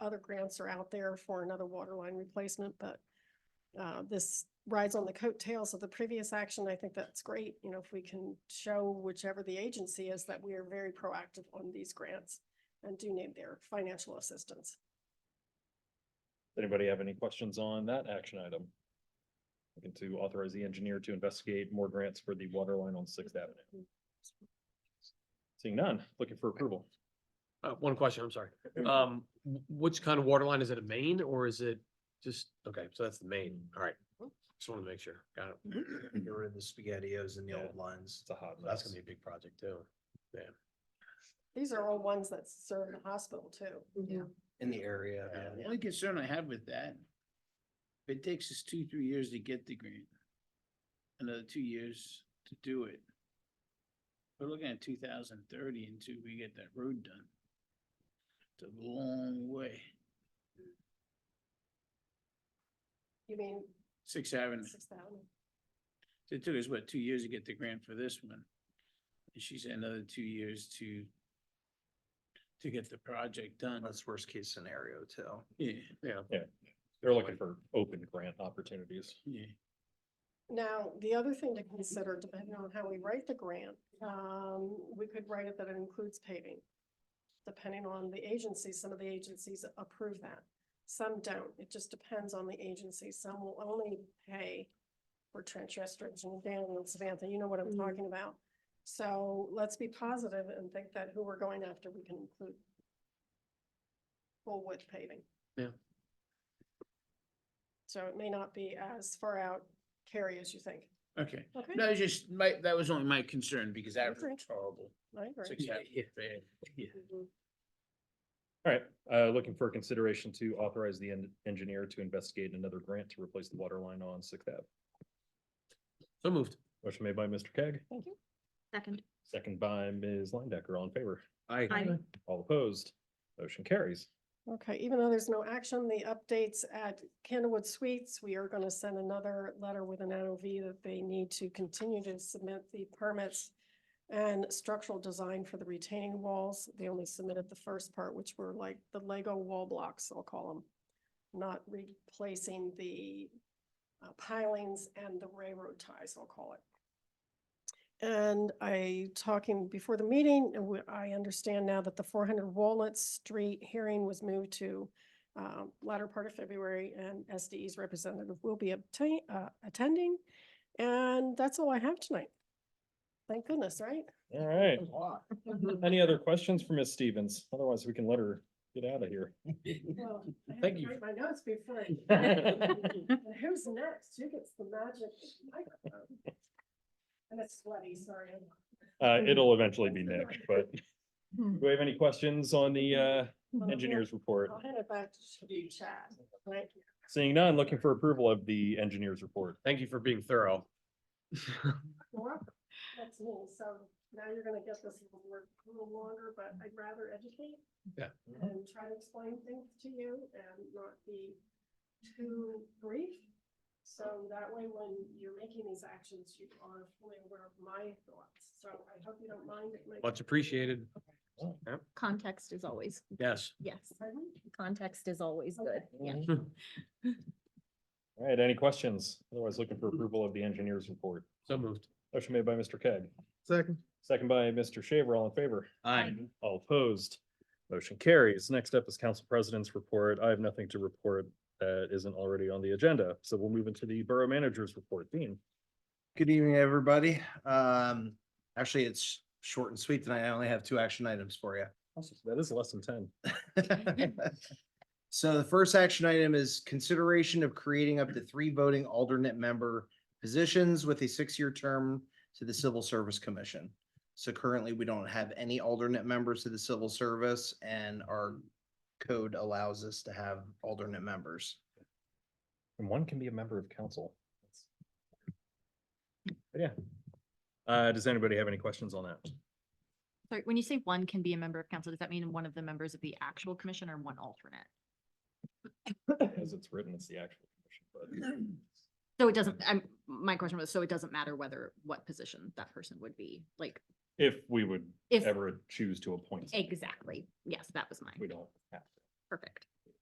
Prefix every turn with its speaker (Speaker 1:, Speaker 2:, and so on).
Speaker 1: other grants are out there for another water line replacement, but uh, this rides on the coattails of the previous action. I think that's great, you know, if we can show whichever the agency is that we are very proactive on these grants and do need their financial assistance.
Speaker 2: Anybody have any questions on that action item? Looking to authorize the engineer to investigate more grants for the water line on Sixth Avenue. Seeing none, looking for approval.
Speaker 3: Uh, one question, I'm sorry. Um, wh- which kind of water line? Is it a main or is it just, okay, so that's the main. All right. Just want to make sure. Got it.
Speaker 4: Get rid of the spaghettios and the
Speaker 2: Yeah.
Speaker 4: old lines.
Speaker 2: It's a hot mess.
Speaker 3: That's gonna be a big project too.
Speaker 1: These are all ones that serve the hospital too.
Speaker 5: Yeah.
Speaker 4: in the area.
Speaker 6: Yeah, The
Speaker 4: yeah.
Speaker 6: only concern I have with that, if it takes us two, three years to get the grant, another two years to do it. We're looking at two thousand thirty until we get that road done. It's a long way,
Speaker 1: You mean
Speaker 6: Sixth Avenue.
Speaker 1: six thousand?
Speaker 6: It took us, what, two years to get the grant for this one? And she said another two years to to get the project done.
Speaker 4: That's worst case scenario too.
Speaker 6: Yeah,
Speaker 3: Yeah.
Speaker 2: They're looking for open grant opportunities.
Speaker 6: yeah.
Speaker 1: Now, the other thing to consider, depending on how we write the grant, um, we could write it that it includes paving. Depending on the agency, some of the agencies approve that, some don't. It just depends on the agency. Some will only pay for trench restoration, and Dan and Samantha, you know what I'm
Speaker 5: Mhm.
Speaker 1: talking about. So let's be positive and think that who we're going after, we can include full width paving.
Speaker 3: Yeah.
Speaker 1: So it may not be as far out carry as you think.
Speaker 6: Okay.
Speaker 1: Okay,
Speaker 6: No, it's just my, that was only my concern because that
Speaker 1: Okay.
Speaker 6: was horrible.
Speaker 1: I agree.
Speaker 6: Six Avenue,
Speaker 3: Yeah.
Speaker 6: bad.
Speaker 2: All right, uh, looking for consideration to authorize the en- engineer to investigate another grant to replace the water line on Sixth Ave.
Speaker 3: So moved.
Speaker 2: Motion made by Mr. Keg,
Speaker 5: Second.
Speaker 2: second by Ms. Linebacker, all in favor.
Speaker 5: Aye.
Speaker 2: All opposed, motion carries.
Speaker 1: Okay, even though there's no action, the updates at Candlewood Suites, we are going to send another letter with an NOV that they need to continue to submit the permits and structural design for the retaining walls. They only submitted the first part, which were like the Lego wall blocks, I'll call them. Not replacing the uh, pilings and the railroad ties, I'll call it. And I, talking before the meeting, and we- I understand now that the four hundred Walnut Street hearing was moved to um, latter part of February, and SDE's representative will be obtain, uh, attending. And that's all I have tonight. Thank goodness, right?
Speaker 2: All right,
Speaker 6: Wow.
Speaker 2: any other questions for Ms. Stevens? Otherwise, we can let her get out of here.
Speaker 1: Well, I had
Speaker 3: Thank
Speaker 1: to
Speaker 3: you.
Speaker 1: write My notes before. I- And who's next? Who gets the magic microphone? And it's sweaty, sorry.
Speaker 2: Uh, it'll eventually be Nick, but do we have any questions on the, uh, engineer's report?
Speaker 1: I'll hand it back to you, Chad. Thank you.
Speaker 2: Seeing none, looking for approval of the engineer's report.
Speaker 3: Thank you for being thorough.
Speaker 1: You're welcome. That's me, so now you're gonna get this little word a little longer, but I'd rather educate.
Speaker 3: Yeah.
Speaker 1: And try to explain things to you and not be too brief. So that way, when you're making these actions, you are fully aware of my thoughts, so I hope you don't mind. it might-
Speaker 3: Much appreciated. Yep.
Speaker 5: Context is always,
Speaker 3: Yes.
Speaker 5: yes,
Speaker 1: Pardon?
Speaker 5: context is always good, yeah.
Speaker 2: All right, any questions? Otherwise, looking for approval of the engineer's report.
Speaker 3: So moved.
Speaker 2: Motion made by Mr. Keg,
Speaker 4: Second.
Speaker 2: second by Mr. Shaver, all in favor.
Speaker 4: Aye.
Speaker 2: All opposed. Motion carries. Next up is council president's report. I have nothing to report that isn't already on the agenda. So we'll move into the borough manager's report. Dean?
Speaker 4: Good evening, everybody. Um, actually, it's short and sweet tonight. I only have two action items for you.
Speaker 2: That is less than ten.
Speaker 4: So the first action item is consideration of creating up to three voting alternate member positions with a six-year term to the Civil Service Commission. So currently, we don't have any alternate members to the civil service and our code allows us to have alternate members.
Speaker 2: And one can be a member of council. But Yeah. Uh, does anybody have any questions on that?
Speaker 5: Sorry, when you say one can be a member of council, does that mean one of the members of the actual commission or one alternate?
Speaker 2: As it's written, it's the actual commission,
Speaker 5: So it doesn't, I'm, my question was, so it doesn't matter whether, what position that person would be, like,
Speaker 2: but if we would
Speaker 5: if,
Speaker 2: ever choose to appoint, someone,
Speaker 5: exactly, yes, that was mine,
Speaker 2: we don't have to.
Speaker 5: perfect.